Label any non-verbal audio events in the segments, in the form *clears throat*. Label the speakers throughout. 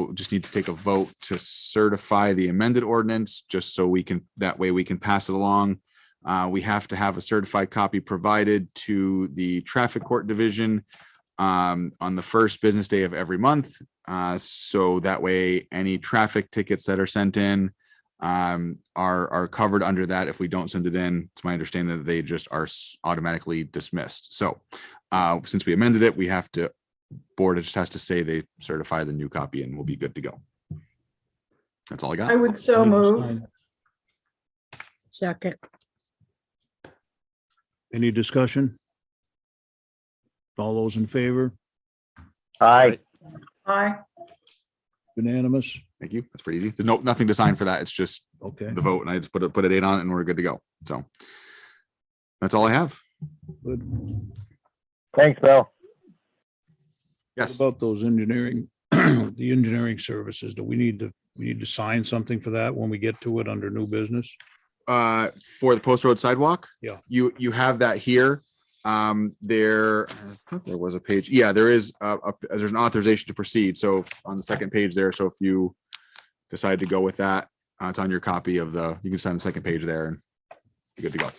Speaker 1: we'll just need to take a vote to certify the amended ordinance, just so we can, that way we can pass it along. Uh, we have to have a certified copy provided to the traffic court division um, on the first business day of every month. Uh, so that way, any traffic tickets that are sent in um, are, are covered under that. If we don't send it in, it's my understanding that they just are s- automatically dismissed. So uh, since we amended it, we have to, board just has to say they certify the new copy and we'll be good to go. That's all I
Speaker 2: I
Speaker 1: got.
Speaker 2: would so move.
Speaker 3: Second,
Speaker 4: Any discussion? All those in favor?
Speaker 5: Aye.
Speaker 2: Aye.
Speaker 4: Unanimous?
Speaker 1: Thank you. That's pretty easy. There's no, nothing to sign for that. It's just
Speaker 4: Okay,
Speaker 1: the vote and I just put a, put a date on it and we're good to go. So that's all I have.
Speaker 4: good.
Speaker 5: Thanks, Bill.
Speaker 4: What
Speaker 1: Yes.
Speaker 4: about those engineering, *clears throat* the engineering services? Do we need to, we need to sign something for that when we get to it under new business?
Speaker 1: Uh, for the post road sidewalk?
Speaker 4: Yeah.
Speaker 1: You, you have that here. Um, there, I thought there was a page. Yeah, there is a, a- there's an authorization to proceed. So on the second page there, so if you decide to go with that, uh, it's on your copy of the, you can sign the second page there and you're good to go.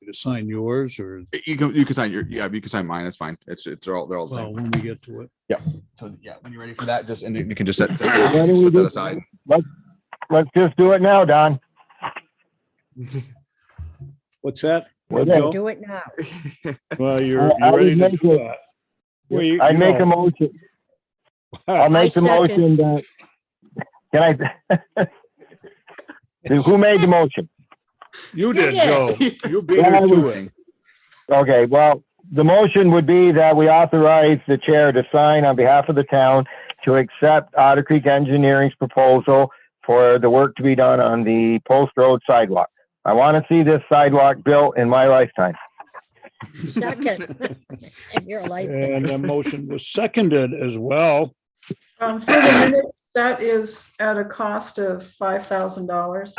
Speaker 4: You just sign yours or,
Speaker 1: You can, you can sign your, yeah, you can sign mine. It's fine. It's, it's all, they're all the
Speaker 4: well,
Speaker 1: same.
Speaker 4: when we get to it?
Speaker 1: So yeah, when you're ready for that, just, and you can just *coughs* set, set
Speaker 5: Why don't we
Speaker 1: set that *laughs*
Speaker 5: do-
Speaker 1: aside.
Speaker 5: Let's just do it now, Don.
Speaker 4: What's that?
Speaker 5: What's
Speaker 4: Joe?
Speaker 3: do it now.
Speaker 4: Well, you're,
Speaker 5: I- I
Speaker 4: you're ready
Speaker 5: would
Speaker 4: to
Speaker 5: make
Speaker 4: do
Speaker 5: it-
Speaker 4: that. Well, you-
Speaker 5: I
Speaker 4: you
Speaker 5: make a
Speaker 4: know, *laughs*
Speaker 5: motion. I'll make the
Speaker 3: I
Speaker 5: motion that,
Speaker 3: second.
Speaker 5: can I? *laughs* Who made the motion?
Speaker 4: You
Speaker 3: You
Speaker 4: did,
Speaker 3: did.
Speaker 1: *laughs*
Speaker 4: Joe. You beat
Speaker 5: Well, I
Speaker 4: her to
Speaker 5: was-
Speaker 4: it.
Speaker 5: Okay, well, the motion would be that we authorize the chair to sign on behalf of the town to accept Otter Creek Engineering's proposal for the work to be done on the Post Road sidewalk. I want to see this sidewalk built in my lifetime.
Speaker 3: Second. You're like,
Speaker 4: And the motion was seconded as well.
Speaker 2: Um, For the minutes, that is at a cost of $5,000.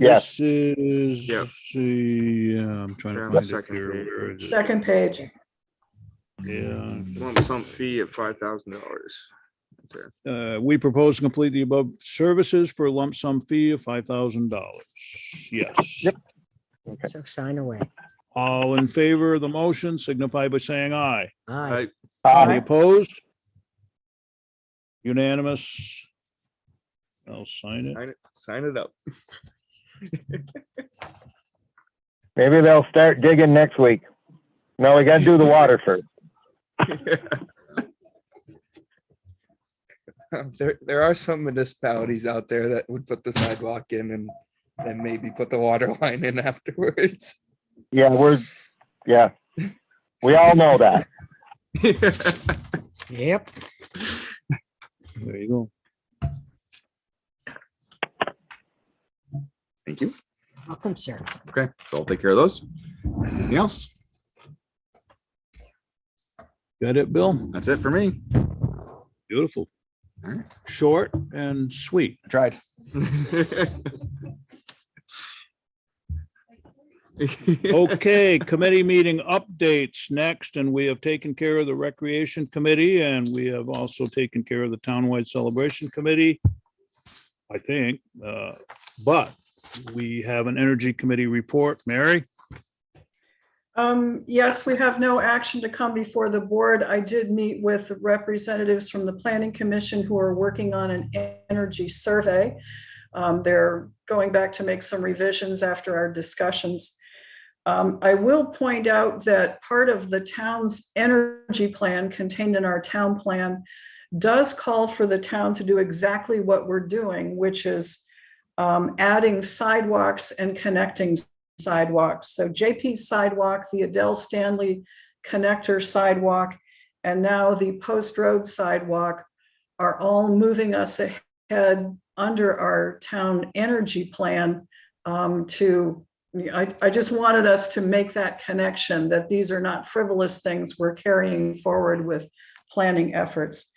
Speaker 5: Yes,
Speaker 4: This is,
Speaker 1: Yep.
Speaker 4: see, yeah, I'm trying
Speaker 6: Yeah,
Speaker 4: to
Speaker 6: the
Speaker 4: find it
Speaker 6: second
Speaker 4: here.
Speaker 6: page.
Speaker 4: Where is it?
Speaker 2: Second page.
Speaker 4: Yeah,
Speaker 6: lump sum fee of five thousand dollars.
Speaker 4: uh, we propose to complete the above services for a lump sum fee of five thousand dollars. Yes.
Speaker 5: Yep.
Speaker 3: so sign away.
Speaker 4: All in favor of the motion signify by saying aye.
Speaker 3: Aye.
Speaker 5: uh,
Speaker 4: Any opposed? Unanimous? I'll sign it.
Speaker 6: Sign it, sign it up.
Speaker 5: maybe they'll start digging next week. No, we gotta do the water first.
Speaker 7: *laughs* There, there are some municipalities out there that would put the sidewalk in and then maybe put the water *laughs* line in afterwards.
Speaker 5: Yeah, we're, yeah. We all know that.
Speaker 3: Yep.
Speaker 4: There you go.
Speaker 1: Thank you.
Speaker 3: Welcome, sir.
Speaker 1: Okay, so I'll take care of those. Anything else?
Speaker 4: Got it, Bill?
Speaker 1: That's it for me.
Speaker 4: Beautiful.
Speaker 1: All right.
Speaker 4: Short and sweet.
Speaker 1: I tried.
Speaker 4: Okay, committee meeting updates next, and we have taken care of the Recreation Committee, and we have also taken care of the Townwide Celebration Committee. I think, uh, but we have an Energy Committee report. Mary?
Speaker 2: Um, yes, we have no action to come before the board. I did meet with representatives from the planning commission who are working on an energy survey. Um, they're going back to make some revisions after our discussions. Um, I will point out that part of the town's energy plan contained in our town plan does call for the town to do exactly what we're doing, which is um, adding sidewalks and connecting sidewalks. So JP sidewalk, the Adele Stanley connector sidewalk, and now the Post Road sidewalk are all moving us ahead under our town energy plan um, to, I, I just wanted us to make that connection, that these are not frivolous things we're carrying forward with planning efforts.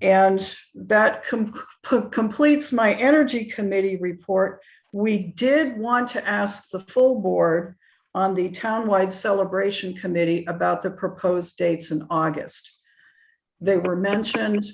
Speaker 2: And that com- *laughs* p- completes my energy committee report. We did want to ask the full board on the townwide celebration committee about the proposed dates in August. They were mentioned.